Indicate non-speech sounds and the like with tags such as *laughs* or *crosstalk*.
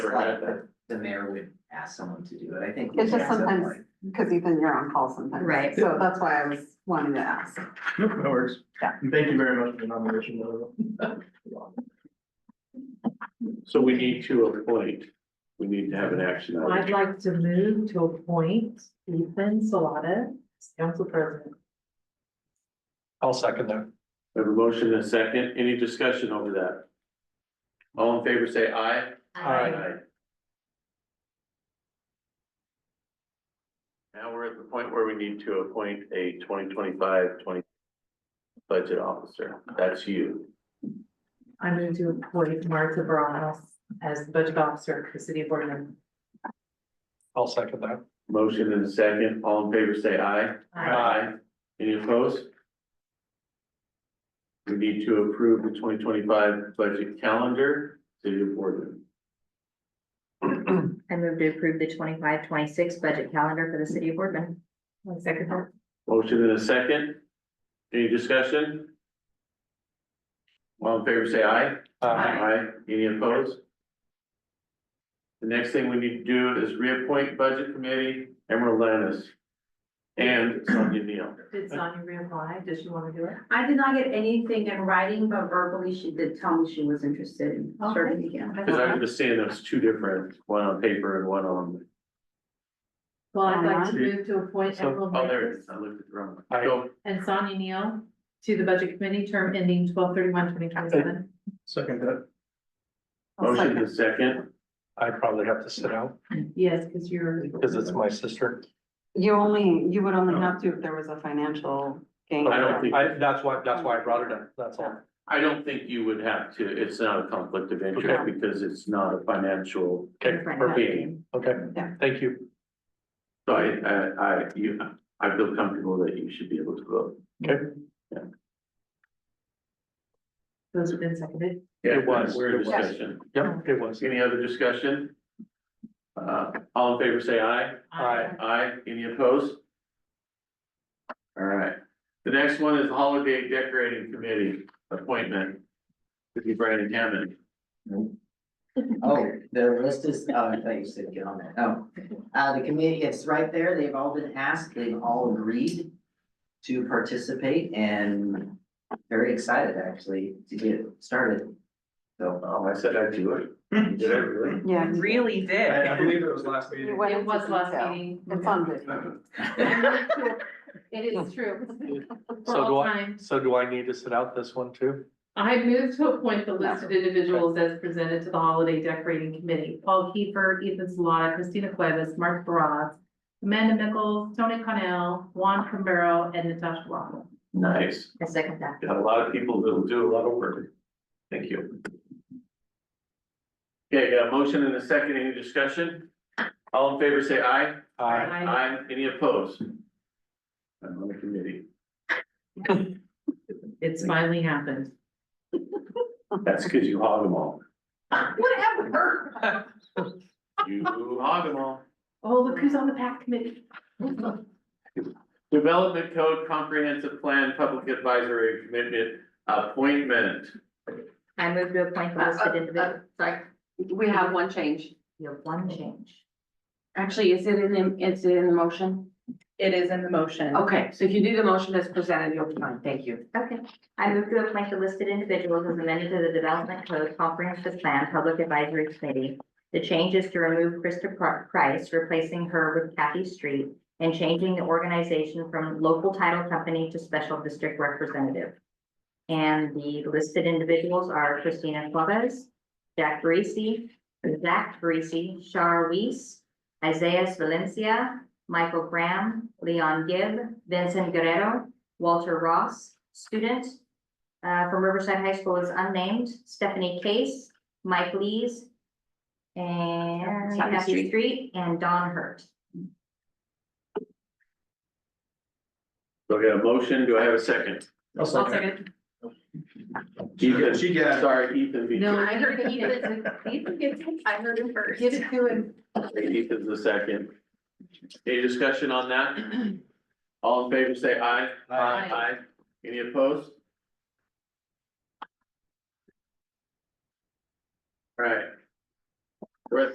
sure how the, the mayor would ask someone to do it, I think. we It's should just have someone sometimes, because Ethan, you're on call sometimes. Right. So that's why I was wanting to ask. Nope, *laughs* that works. Yeah. And Thank you very much for the nomination. by the way. So we need to appoint, we need to have an action. Well, I'd like to move to appoint Ethan Salata as council president. *laughs* I'll second that. I have a motion and a second. Any discussion over that? All in favor, say aye. Now we're at the point where we need to appoint a 2025-20 budget officer. That's you. I move to appoint Martha Barajas as the budget officer for the city of Boardman. I'll second that. Motion and a second. All in favor, say aye. Any opposed? We need to approve the twenty twenty-five budget calendar, city of Boardman. Um, I move to approve the 25-26 budget calendar for the city of Boardman. One second that. Motion and a second. Any discussion? All in favor, say aye. Uh, Aye. Any opposed? The next thing we need to do is reappoint budget committee, Emerald Lannis and Sonia Neal. Did Sonia reapply? Does she want to do it? I did not get anything in writing, but verbally she did tell me she was interested in serving again. Because I was seeing those two different, one on paper and one on, Well, I'd like to Uh-huh. move to appoint So- Emerald oh, there it Mathis is. I looked at the wrong one. Aye. Go. and Sonia Neal to the budget committee, term ending twelve thirty-one, twenty twenty-seven. Second that. I'll Motion second. to second. I probably have to sit out Yes, because you're. because it's my sister. You only, you would only have to if there was a financial gain. Oh. I don't think- I, that's why, that's why I brought it up. That's all. I don't think you would have to, it's not a conflict of interest Okay. because it's not a financial, Okay, Right. perfect. Okay. Okay, Yeah. thank you. so I, I, I, you, I feel comfortable that you should be able to vote. Those have been seconded. It was. We're It in was. discussion. Yep, it was. Any other discussion? Uh, all in favor, say aye. Aye. Aye. Any opposed? All right. The next one is Holiday Decorating Committee appointment. This is Brandon Hammond. Oh, the list is, oh, I thought you said get on that, oh. Uh, the committee, it's right there, they've all been asked, they've all agreed to participate and very excited actually to get started. So, Oh, I said I'd do it. Did I really? Yeah. you- Really I did. I believe it was last you meeting. went It into was last detail. meeting. It's on video. *laughs* It is true. For So do all I, time. so do I need to sit out this one too? I move to appoint the listed individuals as presented to the holiday decorating committee. Paul Kiefer, Ethan Salata, Christina Cuevas, Mark Baraz, Amanda Nichols, Tony Connell, Juan Cambero, and Natasha Waddle. *laughs* Nice. I second that. Got a lot of people that'll do a lot of work. Thank you. Okay, got a motion and a second. Any discussion? All in favor, say aye. Aye. Aye. Aye, any opposed? I'm on the committee, It's finally happened. that's because you hog them all, Whatever. you hog them all. Oh, look who's on the PAC committee. Development Code Comprehensive Plan Public Advisory Commitment Appointment. I move to appoint the listed individual, sorry, We have one change. you have one change. Actually, is it in, is it in the motion? It is in the motion. Okay, so if you do the motion as presented, you'll be fine. Thank you. Okay, I move to appoint the listed individuals as amended to the Development Code Comprehensive Plan Public Advisory Committee. The change is to remove Krista Pr- Price, replacing her with Kathy Street, and changing the organization from local title company to special district representative. And the listed individuals are Christina Flores, Jack Bracy, Zach Bracy, Shar Weiss, Isaias Valencia, Michael Graham, Leon Gibb, Vincent Guerrero, Walter Ross, student uh, from Riverside High School is unnamed, Stephanie Case, Mike Lees, and Kathy Kathy Street. Street, and Don Hurt. So I got a motion, do I have a second? I'll I'll second. second. Ethan, She got it. sorry, Ethan, me No, too. I heard Ethan. Ethan gets it. I heard him first. Give it to him. Ethan's the second. Any discussion on that? All in favor, say aye. Aye. Aye. Any opposed? All right,